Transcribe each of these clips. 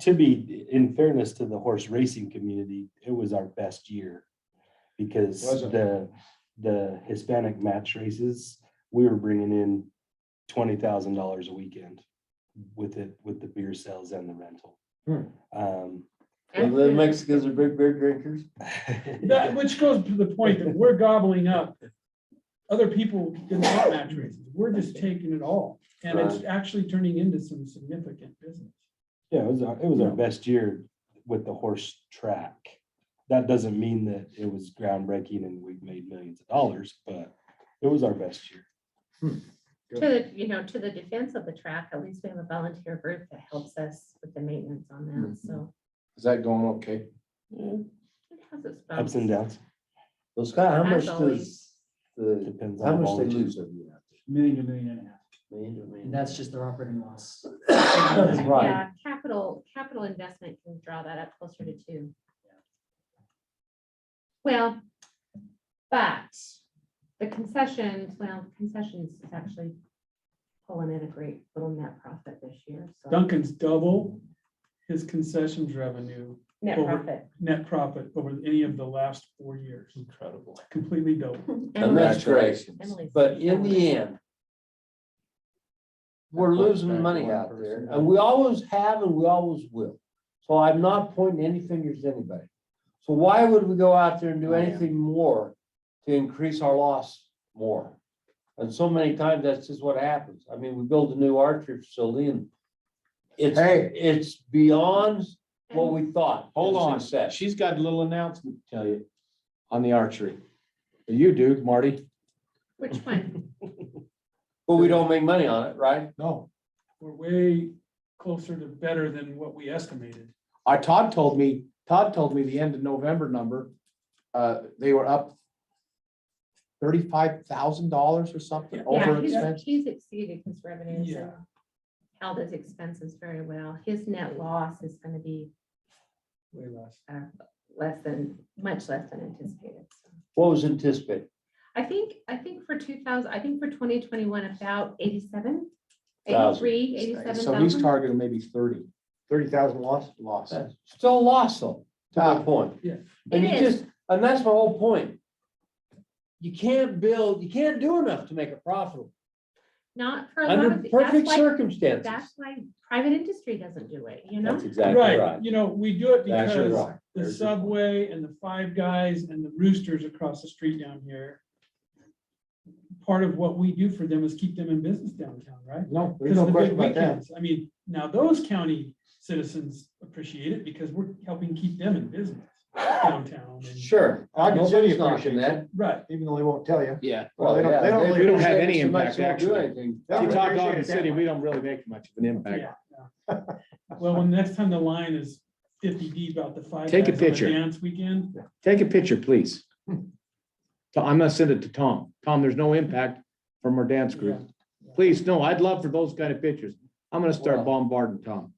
to be, in fairness to the horse racing community, it was our best year. Because Was it? the, the Hispanic match races, we were bringing in twenty thousand dollars a weekend with it, with the beer sales and the rental. Hmm. Um, Well, The Mexicans are big beer drinkers. That, which goes to the point that we're gobbling up. Other people didn't want match races. We're just taking it all. And it's actually turning into some significant business. Yeah, it was our, it was our best year with the horse track. That doesn't mean that it was groundbreaking and we've made millions of dollars, but it was our best year. To the, you know, to the defense of the track, at least we have a volunteer group that helps us with the maintenance on that, Mm-hmm. so. Is that going okay? it has its Ups and Um, bumps. downs, Well, Scott, how much As does always. the, depends how on much they volunteers. lose every year? Million, a million and a half. Million, a And million? that's just their operating loss. That's right. Yeah, capital, capital investment can draw that up closer to two. Well, but the concessions, well, concessions is actually pulling in a great little net profit this year, so. Duncan's double his concessions revenue, Net over- profit. net profit over any of the last four years. Incredible. Completely double. And that's great. Emily's- But in the end, we're losing money out there and we always have and we always will. So I'm not pointing any fingers at anybody. So why would we go out there and do anything more to increase our loss more? And so many times that's just what happens. I mean, we build a new archery facility and it's, it's beyond what we thought. Hold on, Success. she's got a little announcement to tell you on the archery. You do, Marty? Which one? But we don't make money on it, right? No. We're way closer to better than what we estimated. I, Todd told me, Todd told me the end of November number, uh, they were up thirty-five thousand dollars or something over Yeah, expense. he's- he's exceeded his revenues and Yeah. held his expenses very well. His net loss is gonna be Way less. less than, much less than anticipated. so. What was anticipated? I think, I think for two thousand, I think for twenty twenty-one, about eighty-seven, Thousand. eighty-three, eighty-seven So he's thousand. targeting maybe thirty. Thirty thousand loss? Loss. That's Still a loss though, to my point. Yeah. And It you is. just, and that's my whole point. You can't build, you can't do enough to make it profitable Not for a lot of, under the- perfect that's why, circumstances. that's why private industry doesn't do it, you know? That's exactly Right, right. you know, we do it That's your because right. the There's your point. Subway and the Five Guys and the Roosters across the street down here. Part of what we do for them is keep them in business downtown, right? No, Because of the big weekends. I mean, now those county citizens appreciate it because we're helping keep them in business downtown. and- Sure. I can see Nobody's you knocking appreciate that. that, Right, even though they won't tell you. Yeah. Well, they don't- yeah, they don't really We don't have appreciate any it so much, impact they won't do actually. anything. Yeah. See, Todd Appreciate Dog it that City, way. we don't really make much of an impact. yeah. yeah. Well, when next time the line is fifty deep out the Five Take a Guys on the picture. Dance weekend, Take a picture, please. Hmm. So I'm gonna send it to Tom. Tom, there's no impact from our dance group. Please, no, I'd love for those kind of pictures. I'm gonna start Wow. bombarding Tom.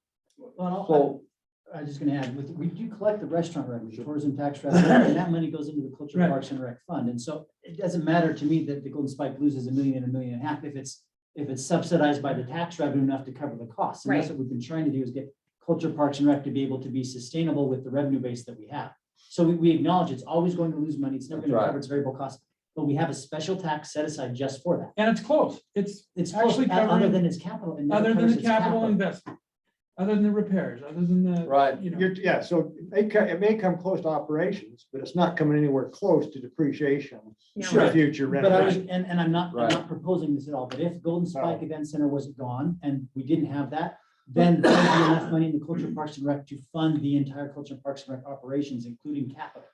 Well, So, I- I was just gonna add, with, we do collect the restaurant revenue, tourism tax revenue, and that money goes into the culture Right. parks and rec fund. And so it doesn't matter to me that the Golden Spike loses a million and a million and a half if it's, if it's subsidized by the tax revenue enough to cover the costs. And that's Right. what we've been trying to do is get culture parks and rec to be able to be sustainable with the revenue base that we have. So we, we acknowledge it's always going to lose money. It's never That's gonna right. cover its variable costs, but we have a special tax set aside just for that. and it's close, it's It's Actually actually other covering- than its capital. it never other than covers the its capital investment, other than the repairs, other than the, right, you know, You're, yeah, so it may, co- it may come close to operations, but it's not coming anywhere close to depreciation No, for future But I was, renovations. and, and I'm not, I'm Right. not proposing this at all, but if Golden Spike Event Center wasn't gone and we didn't have that, then there would be enough money in the Culture Parks and Rec to fund the entire Culture Parks and Rec operations, including capital.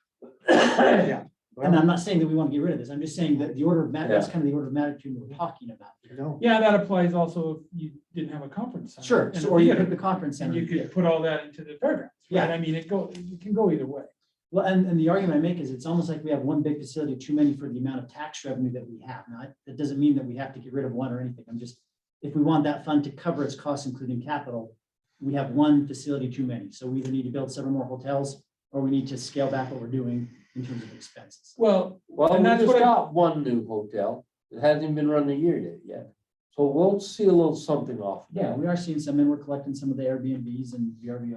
Yeah. And I'm not saying that we want to get rid of this. I'm just saying that the order of ma, that's kind of the order of magnitude we're talking about. No, yeah, that applies also if you didn't have a conference. center Sure, and so a or you theater, put the conference And center. you could put all that into the fairgrounds, right? Yeah. I mean, it go, it can go either way. Well, and, and the argument I make is it's almost like we have one big facility too many for the amount of tax revenue that we have. Now, that doesn't mean that we have to get rid of one or anything. I'm just, if we want that fund to cover its costs, including capital, we have one facility too many. So we either need to build several more hotels or we need to scale back what we're doing in terms of expenses. Well, well, And we that's just what I- got one new hotel, it hasn't been run a year yet, yet. So we'll see a little something off. of that. Yeah, we are seeing some and we're collecting some of the Airbnbs and VRBO